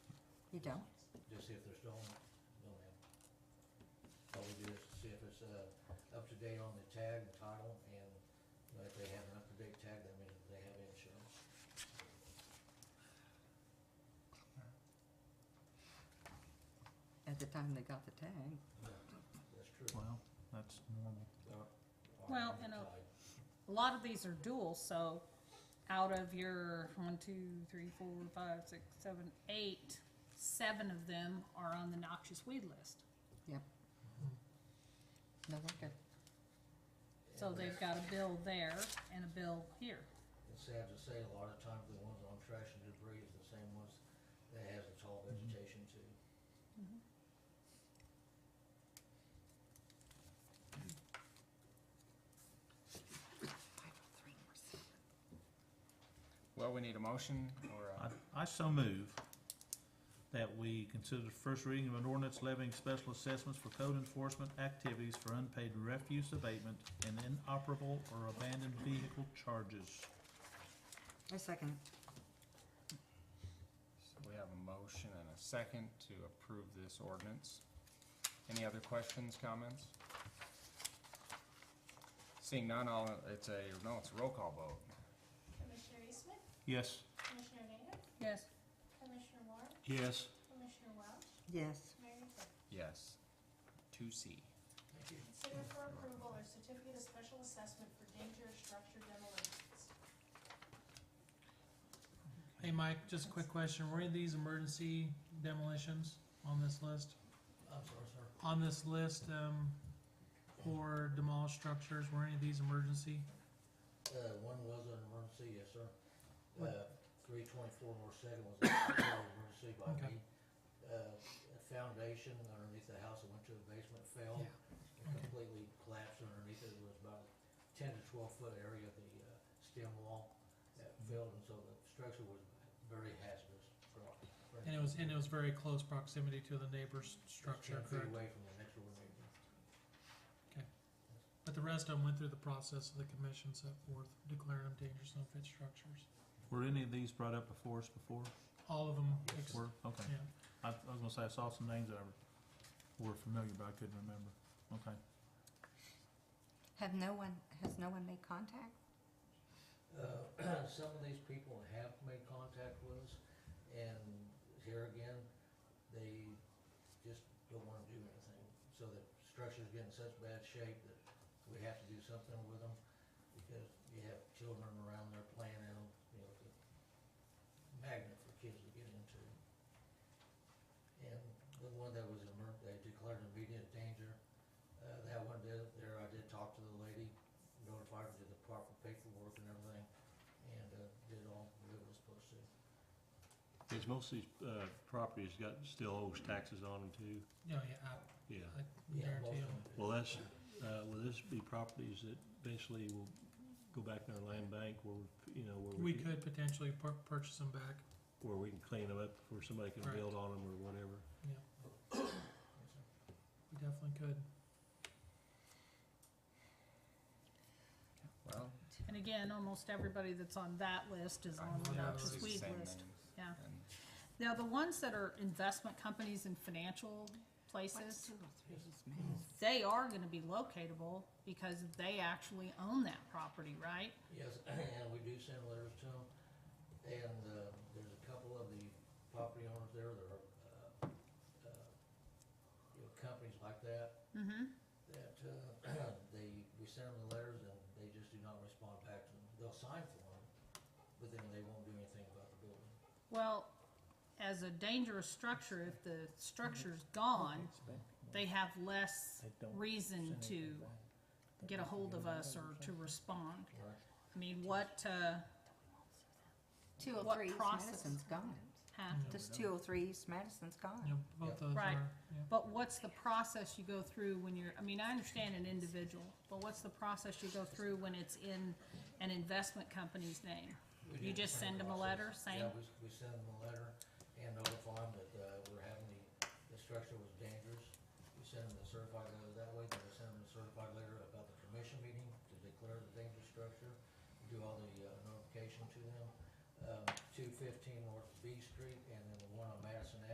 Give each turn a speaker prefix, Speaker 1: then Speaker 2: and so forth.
Speaker 1: You don't?
Speaker 2: Just see if they're stolen, no ma'am. All we do is see if it's, uh, up to date on the tag, the title, and you know, if they have an up to date tag, that means they have insurance.
Speaker 1: At the time they got the tag.
Speaker 2: That's true.
Speaker 3: Well, that's normal.
Speaker 2: Or- or
Speaker 4: Well, and a-
Speaker 2: tag.
Speaker 4: A lot of these are dual, so out of your one, two, three, four, five, six, seven, eight, seven of them are on the noxious weed list.
Speaker 1: No, they're good.
Speaker 4: So
Speaker 2: And
Speaker 4: they've got a bill there and a bill here.
Speaker 2: It's sad to say, a lot of times the ones on trash and debris is the same ones that has the tall
Speaker 3: Mhm.
Speaker 2: vegetation too.
Speaker 5: Well, we need a motion or
Speaker 3: I,
Speaker 5: a,
Speaker 3: I so move that we consider the first reading of an ordinance levying special assessments for code enforcement activities for unpaid refuse abatement and inoperable or abandoned vehicle charges.
Speaker 1: I second
Speaker 5: so we have a motion and a second to approve this ordinance. Any other questions, comments? Seeing none, all, it's a, no, it's a roll call vote.
Speaker 6: Commissioner Eastman,
Speaker 3: Yes.
Speaker 6: Commissioner Nader,
Speaker 4: Yes.
Speaker 6: Commissioner Warren,
Speaker 3: Yes.
Speaker 6: Commissioner Welch,
Speaker 1: it. Yes.
Speaker 6: Mayor Cook.
Speaker 5: Yes. Two C.
Speaker 2: Thank you.
Speaker 6: Consider for approval a certificate of special assessment for dangerous structure demolitions.
Speaker 7: Hey, Mike, just a quick question. Were any of these emergency demolitions on this list?
Speaker 2: I'm sorry, sir.
Speaker 7: On this list, um, for demolished structures, were any of these emergency?
Speaker 2: Uh, one was an emergency, yes, sir.
Speaker 7: What-
Speaker 2: Uh, three twenty-four North Second was an emergency by
Speaker 7: Okay.
Speaker 2: me. Uh, a foundation underneath the house that went to the basement fell.
Speaker 7: Yeah.
Speaker 2: It completely collapsed underneath it. It was about ten to twelve foot area of the, uh, stem wall that
Speaker 7: Mm-hmm.
Speaker 2: fell, and so the structure was very hazardous for, for.
Speaker 7: And it was, and it was very close proximity to the neighbor's
Speaker 2: Ten
Speaker 7: structure,
Speaker 2: feet
Speaker 7: correct?
Speaker 2: away from the next door neighbor.
Speaker 7: But the rest of them went through the process of the commission set forth, declaring them dangerous and unfit structures.
Speaker 3: Were any of these brought up before us before?
Speaker 7: All of them,
Speaker 2: Yes,
Speaker 7: ex-
Speaker 3: Were, okay.
Speaker 7: yeah.
Speaker 3: I, I was gonna say, I saw some names that I were familiar, but I couldn't remember. Okay.
Speaker 1: Have no one, has no one made contact?
Speaker 2: Uh, some of these people have made contact with us, and here again, they just don't wanna do anything. So the structure's get in such bad shape that we have to do something with them, because you have children around there playing in them, you know, it's a magnet for kids to get into. And the one that was emer, they declared immediate danger, uh, that one did, there I did talk to the lady, notified her, did the proper paperwork and everything, and, uh, did all that was supposed to.
Speaker 8: Is most of these, uh, properties got, still owes taxes on them too?
Speaker 7: Yeah, yeah,
Speaker 8: Yeah.
Speaker 7: I, I
Speaker 2: Yeah, most
Speaker 7: guarantee you.
Speaker 2: of them did.
Speaker 8: Well, that's, uh, will this be properties that basically will go back in our land bank where, we- you know, where we,
Speaker 7: We
Speaker 8: can-
Speaker 7: could potentially pur- purchase them back,
Speaker 8: where we can clean them up, where somebody can
Speaker 7: Right.
Speaker 8: build on them or whatever?
Speaker 7: yeah. We definitely could.
Speaker 5: Well,
Speaker 4: And again, almost everybody that's on that list is
Speaker 5: I
Speaker 4: on the
Speaker 5: believe
Speaker 7: Yeah,
Speaker 5: it's
Speaker 4: noxious
Speaker 5: the
Speaker 4: weed
Speaker 5: same
Speaker 4: list.
Speaker 5: names.
Speaker 4: yeah.
Speaker 5: And-
Speaker 4: Now, the ones that are investment companies and financial
Speaker 1: What's
Speaker 4: places,
Speaker 1: two or three is made?
Speaker 4: they are gonna be locatable because they actually own that property, right?
Speaker 2: Yes, and we do send letters to them, and, uh, there's a couple of the property owners there that are, uh, uh, you know, companies like that,
Speaker 4: Mm-hmm.
Speaker 2: that, uh, they, we send them the letters and they just do not respond back to them. They'll sign for them, but then they won't do anything about the building.
Speaker 4: Well, as a dangerous structure, if the structure's gone, they have less reason to get a hold of us or to respond.
Speaker 2: Right.
Speaker 4: I mean, what, uh,
Speaker 1: Two oh
Speaker 4: What
Speaker 1: three East
Speaker 4: process?
Speaker 1: Madison's gone.
Speaker 4: ha-
Speaker 1: This two oh three East Madison's
Speaker 7: Yeah,
Speaker 1: gone.
Speaker 2: Yeah.
Speaker 7: both those
Speaker 4: Right.
Speaker 7: are, yeah.
Speaker 4: but what's the process you go through when you're, I mean, I understand an individual, but what's the process you go through when it's in an investment company's name?
Speaker 2: We
Speaker 4: You
Speaker 2: do the
Speaker 4: just
Speaker 2: same
Speaker 4: send 'em a
Speaker 2: process.
Speaker 4: letter saying-
Speaker 2: Yeah, we, s- we send them a letter and notify them that, uh, we're having the, the structure was dangerous. We send them a certified letter that way, then we send them a certified letter about the commission meeting to declare the dangerous structure. We Do all the, uh, notification to them, um, two fifteen North B Street and then the one on Madison Avenue.